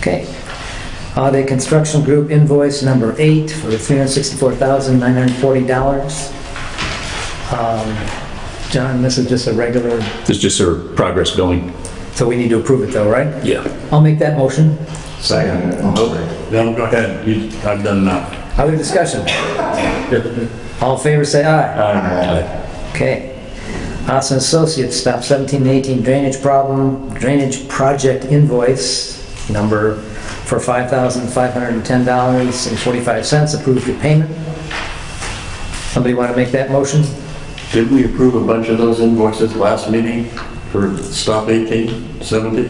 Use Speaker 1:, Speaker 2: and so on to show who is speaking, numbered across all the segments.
Speaker 1: Okay. Uh, The construction group invoice number eight for $364,940. Um, John, this is just a regular,
Speaker 2: It's just her progress billing.
Speaker 1: so we need to approve it though, right?
Speaker 2: Yeah.
Speaker 1: I'll make that motion.
Speaker 3: No, go ahead, You- I've done enough.
Speaker 1: Other discussion? All in favor, say aye.
Speaker 3: Aye.
Speaker 1: Okay. Austin Associates, stop 17 and 18 drainage problem, drainage project invoice number for $5,510.45, approved for payment. Somebody want to make that motion?
Speaker 4: Didn't we approve a bunch of those invoices last meeting for stop 18, 17,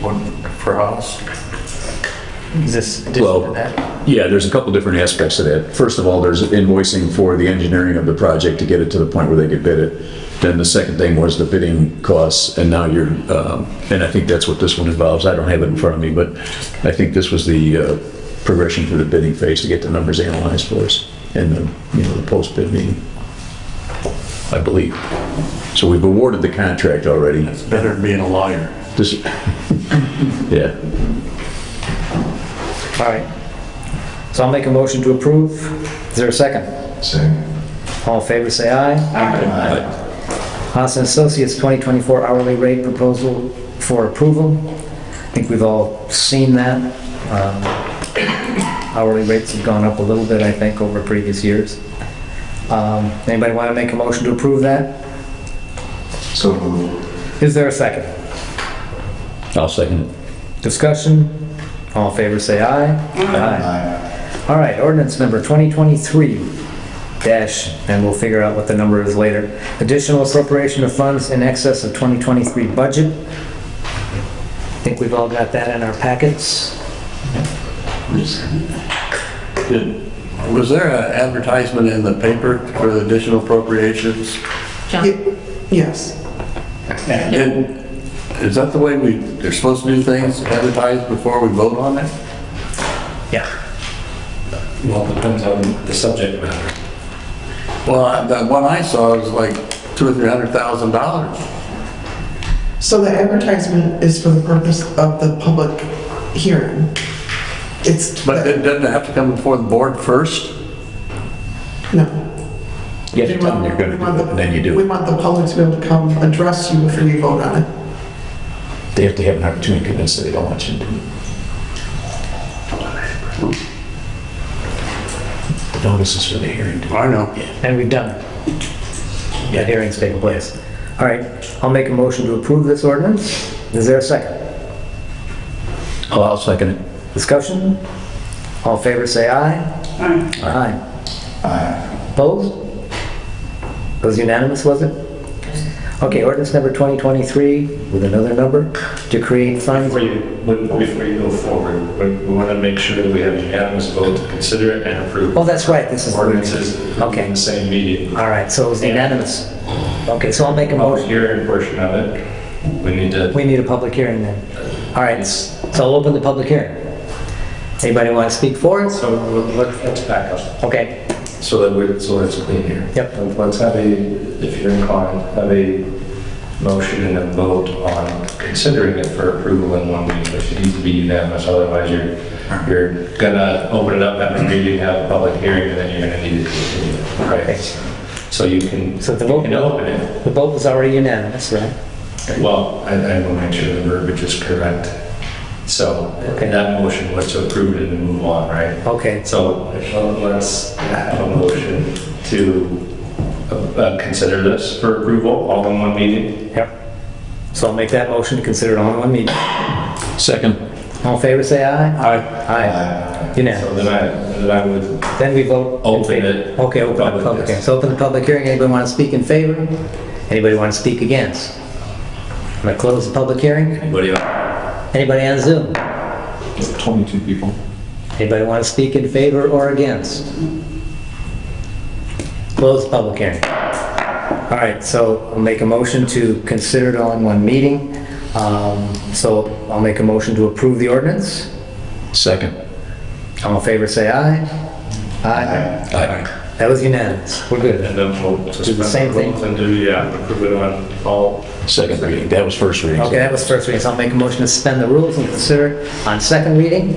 Speaker 4: one for house?
Speaker 1: Is this addition to
Speaker 2: Well,
Speaker 1: that?
Speaker 2: yeah, there's a couple different aspects to that. First of all, there's invoicing for the engineering of the project to get it to the point where they could bid it. Then the second thing was the bidding costs, and now you're, um, and I think that's what this one involves. I don't have it in front of me, but I think this was the uh, progression through the bidding phase to get the numbers analyzed for us and the, you know, the post-bid meeting, I believe. So we've awarded the contract already.
Speaker 3: It's better than being a lawyer.
Speaker 2: This, yeah.
Speaker 1: All right. So I'll make a motion to approve. Is there a second? Second. All in favor, say aye. Aye. Haas and Associates 2024 hourly rate proposal for approval. I think we've all seen that. Um, Hourly rates have gone up a little bit, I think, over previous years. Um, Anybody want to make a motion to approve that?
Speaker 5: So moved.
Speaker 1: Is there a second?
Speaker 2: I'll second it.
Speaker 1: Discussion? All in favor, say aye.
Speaker 5: Aye.
Speaker 1: All right, ordinance number 2023 dash, and we'll figure out what the number is later. Additional appropriation of funds in excess of 2023 budget. I think we've all got that in our packets.
Speaker 4: Did- Was there an advertisement in the paper for the additional appropriations?
Speaker 6: John,
Speaker 5: Yes.
Speaker 4: And is that the way we, they're supposed to do things, advertise before we vote on it?
Speaker 1: Yeah.
Speaker 7: Well, it depends on the subject matter.
Speaker 4: Well, I- that one I saw was like two or three hundred thousand dollars.
Speaker 5: So the advertisement is for the purpose of the public hearing. It's,
Speaker 4: But it doesn't have to come before the board first?
Speaker 5: no.
Speaker 2: You have to tell them you're
Speaker 5: We
Speaker 2: gonna
Speaker 5: want
Speaker 2: do it,
Speaker 5: the-
Speaker 2: and then you
Speaker 5: We
Speaker 2: do it.
Speaker 5: want the public to be able to come address you before you vote on it.
Speaker 2: They have to have an opportunity to convince that they don't want you to do it. The notice is for the hearing.
Speaker 4: I know.
Speaker 1: And we've done it. That hearing's taken place. All right, I'll make a motion to approve this ordinance. Is there a second?
Speaker 2: Oh, I'll second it.
Speaker 1: Discussion? All in favor, say aye. Aye. Aye. Opposed? It Was unanimous, was it? Okay, ordinance number 2023 with another number to create funds.
Speaker 7: Before you, before you go forward, we- we want to make sure that we have unanimous vote to consider it and approve
Speaker 1: Oh, that's right, this is.
Speaker 7: ordinances
Speaker 1: Okay.
Speaker 7: in the same meeting.
Speaker 1: All right, so it was unanimous. Okay, so I'll make a
Speaker 7: Public
Speaker 1: motion.
Speaker 7: hearing portion of it, we need to,
Speaker 1: We need a public hearing then. All right, s- so I'll open the public hearing. Anybody want to speak for it?
Speaker 7: so let- let's back up
Speaker 1: Okay,
Speaker 7: so that we, so that it's clean here.
Speaker 1: Yep.
Speaker 7: And Let's have a, if you're inclined, have a motion and a vote on considering it for approval in one meeting, which needs to be unanimous, otherwise you're, you're gonna open it up at a meeting, have a public hearing, and then you're gonna need to continue it, right? So you can,
Speaker 1: So the
Speaker 7: you
Speaker 1: vote-
Speaker 7: can open it.
Speaker 1: the vote was already unanimous, right?
Speaker 7: Well, I, I will make sure the verbiage is correct. So
Speaker 1: Okay.
Speaker 7: that motion was to approve it and move on, right?
Speaker 1: Okay,
Speaker 7: So let's have a motion to uh, consider this for approval, all in one meeting.
Speaker 1: yep. So I'll make that motion to consider it all in one meeting.
Speaker 2: Second.
Speaker 1: All in favor, say aye.
Speaker 7: Aye.
Speaker 1: Aye.
Speaker 7: So
Speaker 1: Unanimous.
Speaker 7: then I, then I would,
Speaker 1: Then we vote. in
Speaker 7: Open
Speaker 1: favor.
Speaker 7: it.
Speaker 1: Okay, open the
Speaker 7: Public,
Speaker 1: public
Speaker 7: yes.
Speaker 1: hearing. So open the public hearing. Anybody want to speak in favor? Anybody want to speak against? I'm going to close the public hearing.
Speaker 7: what do you,
Speaker 1: Anybody on Zoom?
Speaker 2: 22 people.
Speaker 1: Anybody want to speak in favor or against? Close the public hearing. All right, so I'll make a motion to consider it all in one meeting. Um, So I'll make a motion to approve the ordinance.
Speaker 2: Second.
Speaker 1: All in favor, say aye. Aye.
Speaker 2: Aye.
Speaker 1: That was unanimous. We're good.
Speaker 7: And then we'll suspend
Speaker 1: same
Speaker 7: the
Speaker 1: thing.
Speaker 7: rules and do, yeah, approve it on all
Speaker 2: Second reading, that was first reading. so-
Speaker 1: Okay, that was first reading, so I'll make a motion to suspend the rules and consider it on second reading